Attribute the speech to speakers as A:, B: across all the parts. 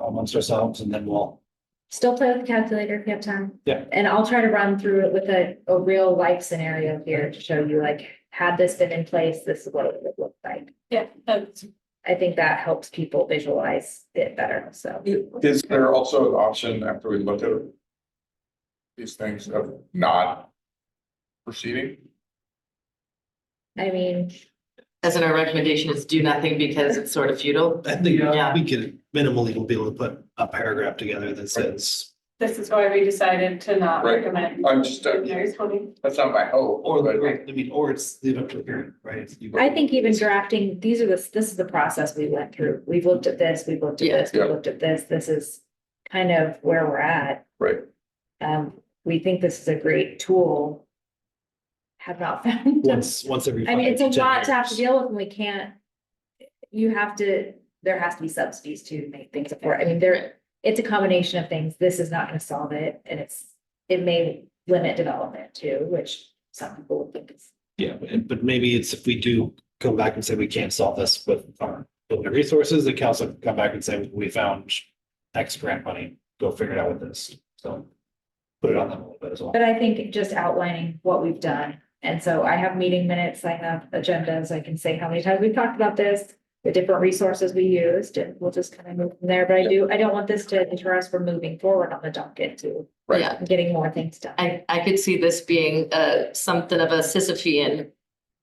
A: amongst ourselves and then we'll.
B: Still play with the calculator if you have time.
A: Yeah.
B: And I'll try to run through it with a, a real life scenario here to show you like, had this been in place, this is what it would have looked like.
C: Yeah, that's,
B: I think that helps people visualize it better, so.
D: Is there also an option after we look at these things of not proceeding?
B: I mean,
E: As in our recommendation is do nothing because it's sort of futile.
F: I think
E: Yeah.
F: we could minimally will be able to put a paragraph together that says,
C: this is why we decided to not
D: Right.
C: recommend.
D: I'm just,
C: There's one.
D: that's not my hope,
F: or,
D: but
F: I mean, or it's leave it up to the parent, right? It's- you-
B: I think even drafting, these are the, this is the process we went through. We've looked at this, we've looked at
E: Yeah.
B: this, we've
D: Yeah.
B: looked at this. This is kind of where we're at.
D: Right.
B: Um, we think this is a great tool. Have not found.
F: Once, once every.
B: I mean,
F: five
B: it's a
F: ten
B: lot to have to
F: years.
B: deal with and we can't. You have to, there has to be subsidies to make things afford. I mean, there, it's a combination of things. This is not gonna solve it and it's, it may limit development too, which some people would think is.
F: Yeah, but- but maybe it's if we do come back and say we can't solve this with our building resources, the council can come back and say, we found X grant money, go figure it out with this, so. Put it on them a little bit as well.
B: But I think just outlining what we've done. And so I have meeting minutes, I have agendas, I can say how many times we've talked about this, the different resources we used, and we'll just kind of move from there. But I do, I don't want this to deter us from moving forward on the docket to
D: Right.
E: Yeah,
B: getting more things done.
E: I, I could see this being, uh, something of a Sisyphean,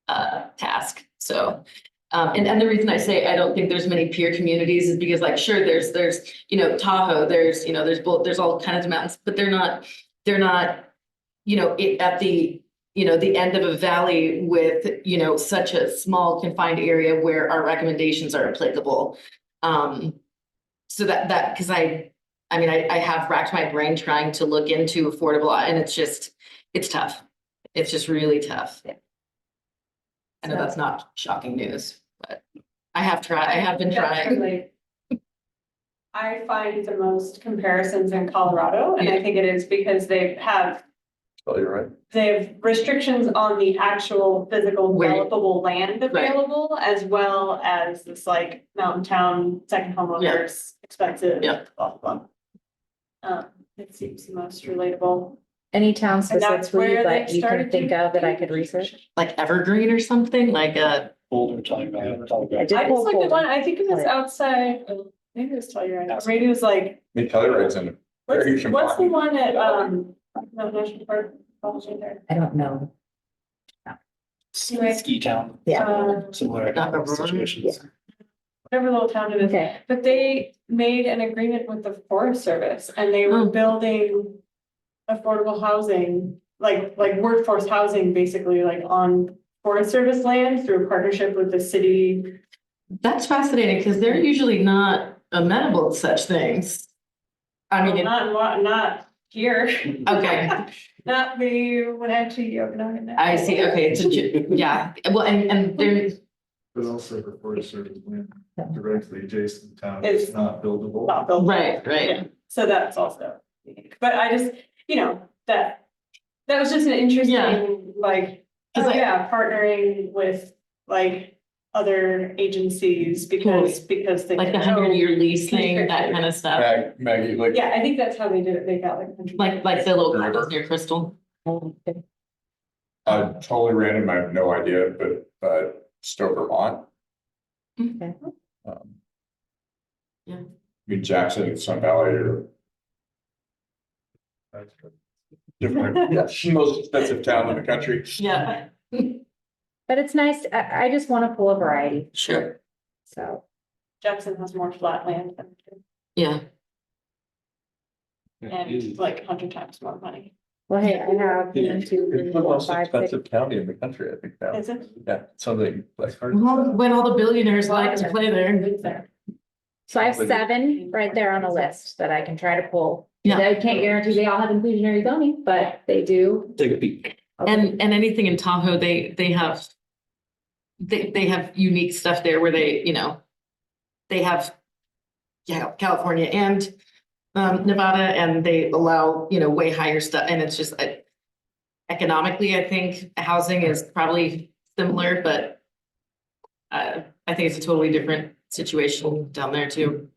E: uh, task, so. Um, and, and the reason I say I don't think there's many peer communities is because like, sure, there's, there's, you know, Tahoe, there's, you know, there's, Bul- there's all kinds of mountains, but they're not, they're not, you know, it, at the, you know, the end of a valley with, you know, such a small confined area where our recommendations are applicable. Um, so that, that, because I I mean, I, I have racked my brain trying to look into affordable and it's just, it's tough. It's just really tough.
B: Yeah.
E: I know that's not shocking news, but I have tried, I have been trying.
C: I find the most comparisons in Colorado, and I think it is because they have,
D: oh, you're right.
C: they have restrictions on the actual physical
E: Where-
C: developable land available, as well as this like mountain town, second homeowners, expensive.
E: Yeah.
C: blah, blah, blah. Um, it seems the most relatable.
B: Any town
C: And that's
B: specifically
C: where
B: that
C: they
B: you can
C: started
B: think
C: doing
B: of that I could research?
E: Like Evergreen or something like uh, a,
A: Boulder, Telegram,
B: I
A: Telegram.
B: did
C: I
B: pull
C: just looked
B: Boulder.
C: at one, I think it was
B: Right.
C: outside, oh, maybe it was Telluride, radio's like
D: Me Telluride's in.
C: What's,
D: Very huge
C: what's the
D: amount.
C: one at, um, no, National Park, Boston there?
B: I don't know.
A: Ski town,
C: Uh,
A: similar
E: Not a room.
A: situations.
C: Whatever little town it is,
B: Okay,
C: but they made an agreement with the Forest Service and they were
E: Oh.
C: building affordable housing, like, like workforce housing, basically, like on Forest Service land through a partnership with the city.
E: that's fascinating because they're usually not amenable to such things. I mean, it-
C: Not, not, not here,
E: okay,
C: not the, when I to Yokosuka.
E: I see, okay, it's a ju- yeah, well, and, and there,
G: But also the Forest Service land directly adjacent to town
C: It's-
G: is not buildable.
C: Not built.
E: right, right.
C: So that's also, unique. but I just, you know, that, that was just an
E: Yeah.
C: interesting, like,
E: It's
C: oh
E: like-
C: yeah, partnering with like other agencies because, because they.
E: Like the
C: know-
E: hundred year lease thing, that kind of stuff.
D: Mag- Maggie, like,
C: Yeah, I think that's how they did it. They got like. 100
E: Like, like the little condos near Crystal.
D: uh, totally random, I have no idea, but, but Stowe, Vermont.
B: Okay.
D: um,
E: Yeah.
D: I mean, Jackson and Sun Valley are different, most expensive town in the country.
E: Yeah.
B: but it's nice, I, I just wanna pull a variety,
E: Sure.
B: so.
C: Jackson has more flat land than we
E: Yeah,
C: do, and like a hundred times more money.
B: Well, hey, I have one, two, three,
D: It's the
B: four,
D: most
B: five, six.
D: expensive county in the country, I think now.
C: Is it?
D: Yeah, something like.
E: Well, when all the billionaires like to play there.
B: So I have seven right there on a list that I can try to pull.
E: Yeah.
B: I can't guarantee they all have inclusionary zoning, but they do.
F: Take a peek.
E: And, and anything in Tahoe, they, they have, they, they have unique stuff there where they, you know, they have, yeah, California and, um, Nevada, and they allow, you know, way higher stuff, and it's just like economically, I think housing is probably similar, but uh, I think it's a totally different situation down there too.